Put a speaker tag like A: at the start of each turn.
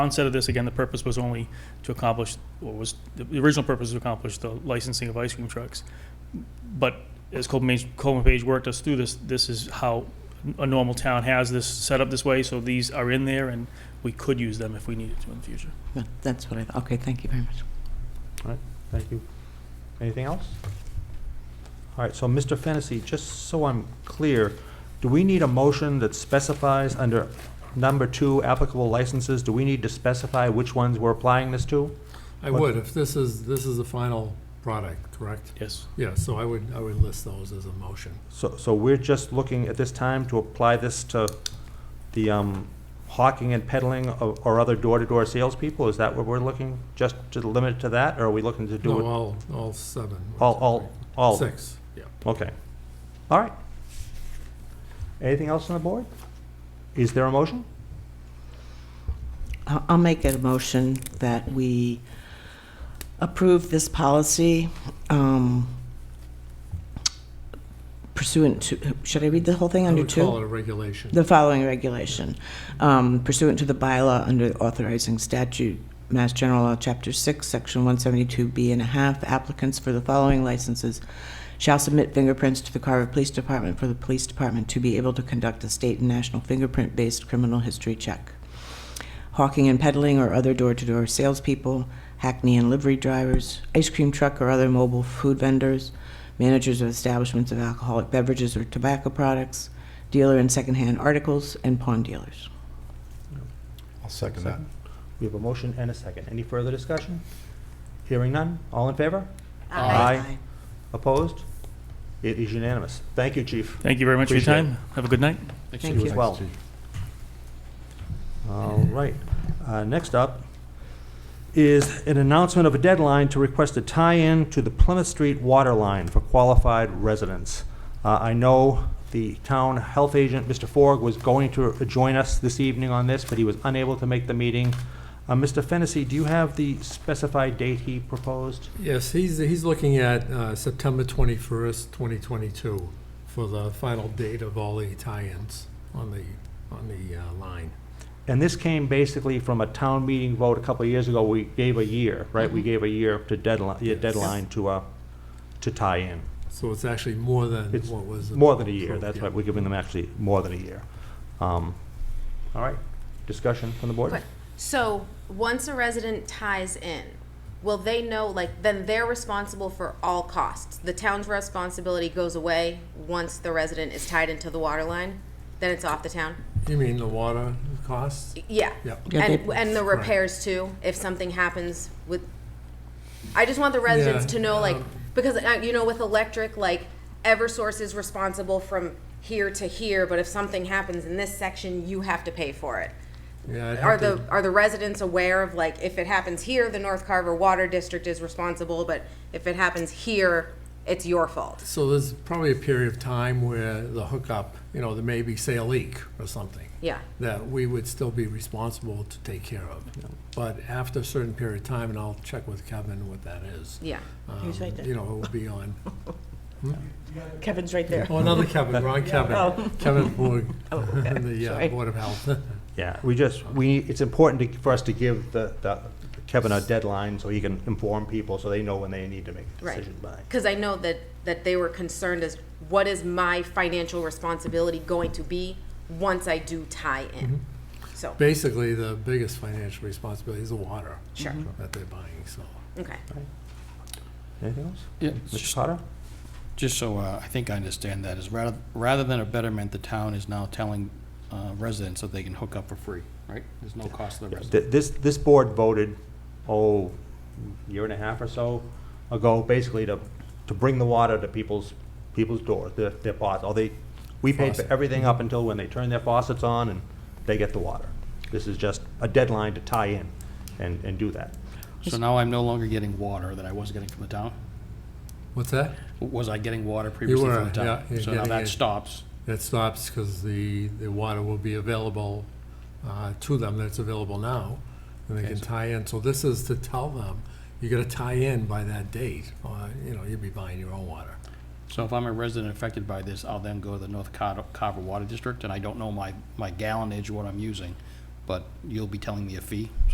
A: onset of this, again, the purpose was only to accomplish, or was, the original purpose was to accomplish the licensing of ice cream trucks. But as Coleman Page, Coleman Page worked us through this, this is how a normal town has this set up this way, so these are in there, and we could use them if we needed to in the future.
B: But That's what I, thought. okay, thank you very much.
C: Thank you. Anything else? All right, so Mr. Fennessy, just so I'm clear, do we need a motion that specifies under number two applicable licenses, do we need to specify which ones we're applying this to?
D: I
C: What-
D: would, if this is, this is the final product, correct?
A: Yes.
D: Yeah, so I would, I would list those as a motion.
C: So, so we're just looking at this time to apply this to the um, hawking and peddling o- or other door-to-door salespeople? Is that what we're looking, just to limit it to that, or are we looking to do
D: No,
C: it?
D: all, all seven.
C: All, all, all?
D: Six, yeah.
C: Okay. All right. Anything else on the board? Is there a motion?
B: I'll I'll make a motion that we approve this policy um, pursuant to, should I read the whole thing
D: I
B: under
D: would call
B: two?
D: it a regulation.
B: The following regulation um, pursuant to the bylaw under authorizing statute, Mass General Law, Chapter 6, Section 172B and a half, applicants for the following licenses shall submit fingerprints to the Carver Police Department for the Police Department to be able to conduct a state and national fingerprint-based criminal history check. Hawking and peddling or other door-to-door salespeople, hackney and livery drivers, ice cream truck or other mobile food vendors, managers of establishments of alcoholic beverages or tobacco products, dealer in secondhand articles, and pawn dealers.
E: I'll second that.
C: We have a motion and a second. Any further discussion? Hearing none. All in favor? Aye. Opposed? It is unanimous. Thank you, Chief.
A: Thank you very much for your
C: Appreciate
A: time. Have a good night.
B: Thank you.
C: as well. All right. Uh, Next up is an announcement of a deadline to request a tie-in to the Plymouth Street water line for qualified residents. Uh, I know the town health agent, Mr. Forg, was going to join us this evening on this, but he was unable to make the meeting. Uh, Mr. Fennessy, do you have the specified date he proposed?
D: Yes, he's, he's looking at uh, September 21st, 2022 for the final date of all the tie-ins on the, on the uh, line.
C: And this came basically from a town meeting vote a couple of years ago. We gave a year, right? We gave a year to deadline, yeah,
D: Mm-hmm. Yes.
C: deadline to, uh, to tie in.
D: So it's actually more than
C: It's
D: what was.
C: More than a year,
D: approved,
C: that's
D: yeah.
C: right, we're giving them actually more than a year. Um, All right, discussion from the board?
F: But- So, once a resident ties in, will they know, like, then they're responsible for all costs? The town's responsibility goes away once the resident is tied into the water line? Then it's off the town?
D: You mean the water costs?
F: Yeah.
D: Yep.
B: Yeah,
F: And,
B: they-
F: and the
D: Right.
F: repairs too, if something happens with, I just want the residents
D: Yeah,
F: to know, like,
D: um,
F: because, uh, you know, with electric, like, Eversource is responsible from here to here, but if something happens in this section, you have to pay for it.
D: Yeah, I'd
F: Are
D: have to-
F: the, are the residents aware of, like, if it happens here, the North Carver Water District is responsible, but if it happens here, it's your fault?
D: So there's probably a period of time where the hookup, you know, there may be, say, a leak or something.
F: Yeah.
D: That we would still be responsible to take care of. But after a certain period of time, and I'll check with Kevin what that is.
F: Yeah.
D: um,
B: He's right there.
D: You know, it will be on,
B: Kevin's right there.
D: oh, another Kevin, wrong
B: Oh.
D: Kevin, Kevin Borg,
B: Oh, okay,
D: the uh,
B: sorry.
D: Board of Health.
C: Yeah, we just, we, it's important to- for us to give the the Kevin a deadline so he can inform people, so they know when they need to make a
F: Right.
C: decision by.
F: Because I know that, that they were concerned as, what is my financial responsibility going to be once I do tie in? So,
D: Basically, the biggest financial responsibility is the water.
F: Sure.
D: That they're buying, so.
F: okay.
C: Anything else?
E: Yeah,
C: Mr.
E: just-
C: Potter?
E: just so uh, I think I understand that, is rather, rather than a betterment, the town is now telling uh, residents that they can hook up for free, right? There's no cost to the resident.
C: Th- This, this board voted, oh, year and a half or so ago, basically to, to bring the water to people's, people's doors, their, their faucets. All they, we paid for
D: Faucet.
C: everything up until when they turn their faucets on and they get the water. This is just a deadline to tie in and, and do that.
E: So now I'm no longer getting water that I was getting from the town?
D: What's that?
E: Was I getting water previously
D: were,
E: from the town?
D: yeah, you're
E: So now
D: getting
E: that
D: it.
E: stops.
D: That stops because the, the water will be available uh, to them that's available now, and they
E: Okay,
D: can
E: so-
D: tie in. So this is to tell them, you gotta tie in by that date, or, you know, you'll be buying your own water.
E: So if I'm a resident affected by this, I'll then go to the North Car- Carver Water District, and I don't know my, my gallonage, what I'm using, but you'll be telling me a fee?